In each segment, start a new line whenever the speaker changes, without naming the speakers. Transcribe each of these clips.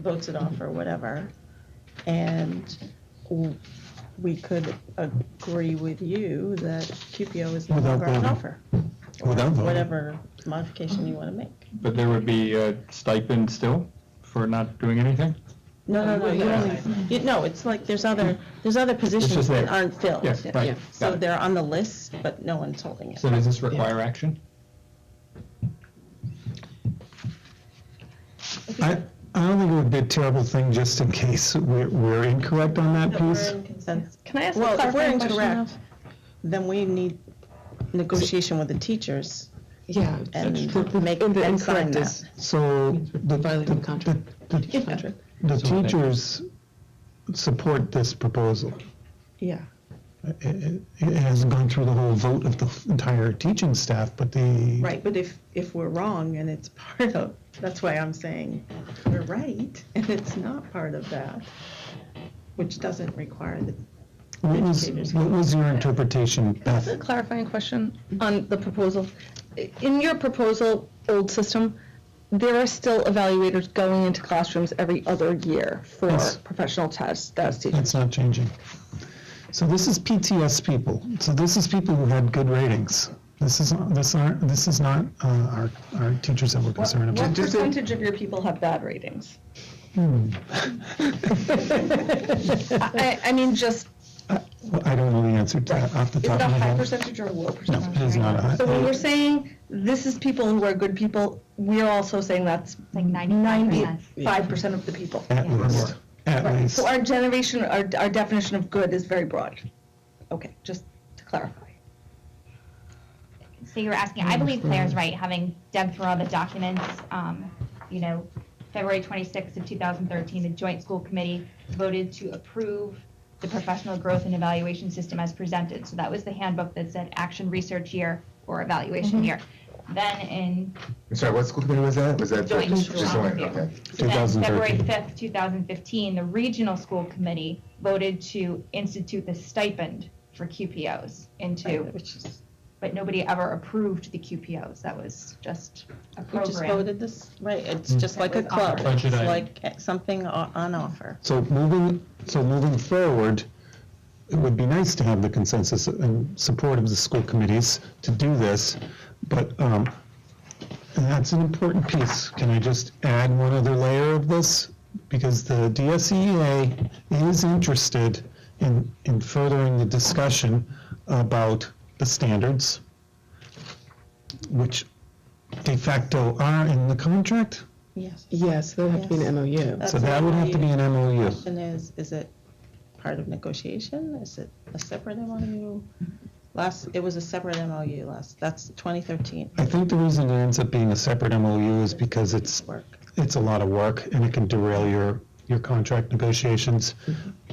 votes it off or whatever. And w- we could agree with you that QPO is no
Without
longer on
voting.
offer. or
Without voting.
Whatever modification you want to make.
But there would be a stipend still for not doing anything?
No, no, no, you
Yeah.
only, you, no, it's like, there's other, there's other positions
just
that
there.
aren't filled.
Yeah,
yeah.
right.
So
Got it.
they're on the list, but no one's holding it.
So does this require action?
I, I don't think it would be a terrible thing just in case we're, we're incorrect on that piece.
Consensus.
Can I ask a
Well, if we're
clarifying question?
incorrect, then we need negotiation with the teachers
Yeah.
and
the- the-
make,
and the
and sign
incorrect
that.
is-
So the,
Violating the
the,
contract.
the,
Yeah.
the
So then-
teachers support this proposal.
Yeah.
It, it- it hasn't gone through the whole vote of the entire teaching staff, but the.
Right, but if, if we're wrong and it's part of, that's why I'm saying we're right and it's not part of that, which doesn't require the.
What was, what was your interpretation,
That's a
Beth?
clarifying question on the proposal. In your proposal, old system, there are still evaluators going into classrooms every other year for
Yes.
professional tests, that's teachers.
That's not changing. So this is PTS people. So this is people who had good ratings. This is, this aren't, this is not uh, our, our teachers that we're concerned about. Hmm.
What percentage of your people have bad ratings? I, I- I mean, just,
Well, I don't know the answer to that off the
is
top
it a
of my
high
head.
percentage or a low percentage?
it is not a high-
So when we're saying this is people who are good people, we are also saying that's
Like 95%.
ninety-five percent of the people.
At least, at
Right,
least.
so our generation, our, our definition of good is very broad. Okay, just to clarify.
So you were asking, I believe Claire's right, having dug through all the documents, um, you know, February twenty-sixth of two thousand thirteen, the joint school committee voted to approve the professional growth and evaluation system as presented. So that was the handbook that said action research year or evaluation year. Then in
I'm sorry, what school committee was that? Was that?
joint
just
school
joint,
review.
okay.
So then February
2013.
fifth, two thousand fifteen, the regional school committee voted to institute the stipend for QPOs into
Which is,
but nobody ever approved the QPOs. That was just a
we just
program.
voted this, right, it's
Mm.
just like a
With
club,
offer.
it's
Budget item.
like something o- on offer.
So moving, so moving forward, it would be nice to have the consensus and support of the school committees to do this, but, um, and that's an important piece. Can I just add one other layer of this? Because the DSEA is interested in, in furthering the discussion about the standards, which de facto are in the contract.
Yes.
Yes, that would have to be an MOU.
So that would have to be an MOU.
Question is, is it part of negotiation? Is it a separate MOU? Last, it was a separate MOU last, that's 2013
I think the reason it ends up being a separate MOU is because it's,
work.
it's a lot of work and it can derail your, your contract negotiations.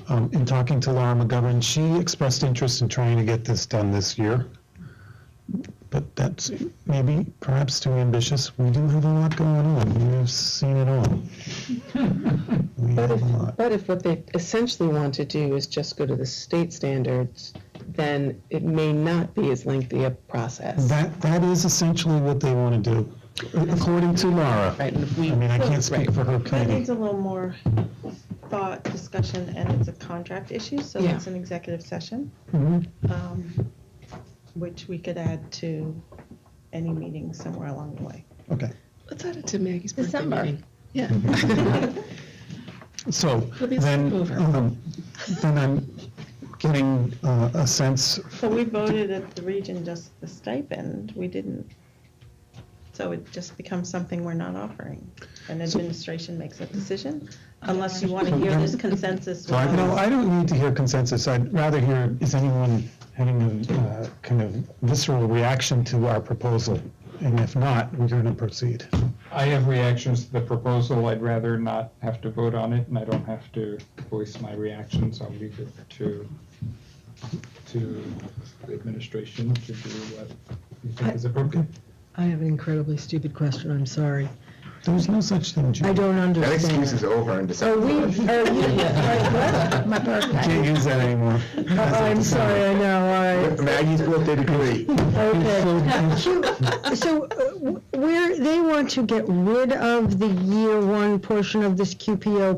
Um, in talking to Laura McGovern, she expressed interest in trying to get this done this year. But that's maybe perhaps too ambitious. We do have a lot going on. You've seen it all. We
But
have
if,
a lot.
but if what they essentially want to do is just go to the state standards, then it may not be as lengthy a process.
That, that is essentially what they want to do, according to Laura.
Right, and if
I
we,
mean, I can't speak for her
That
committee.
needs a little more thought, discussion, and it's a contract issue, so
Yeah.
it's an executive session,
Mhm.
um, which we could add to any meeting somewhere along the way.
Okay.
let's add it to Maggie's birthday
December.
meeting. Yeah.
So
It'll be
then,
sleepover.
um, then I'm getting uh, a sense,
So we voted at the region just the stipend, we didn't, so it just becomes something we're not offering. And administration makes that decision, unless you want to hear this consensus.
no,
without-
I don't need to hear consensus, I'd rather hear, is anyone having a uh, kind of visceral reaction to our proposal? And if not, we're going to proceed.
I have reactions to the proposal. I'd rather not have to vote on it, and I don't have to voice my reactions. I'll leave it to, to the administration to do what you think is appropriate.
I have an incredibly stupid question, I'm sorry.
There's no such thing, Judy.
I don't
That
understand.
excuse is over in December.
Are we, are you, like, what? My
Can't
birthday.
use that anymore.
Oh, I'm sorry, I know, all right.
Maggie's birthday degree.
So, so uh, w- where, they want to get rid of the year one portion of this QPO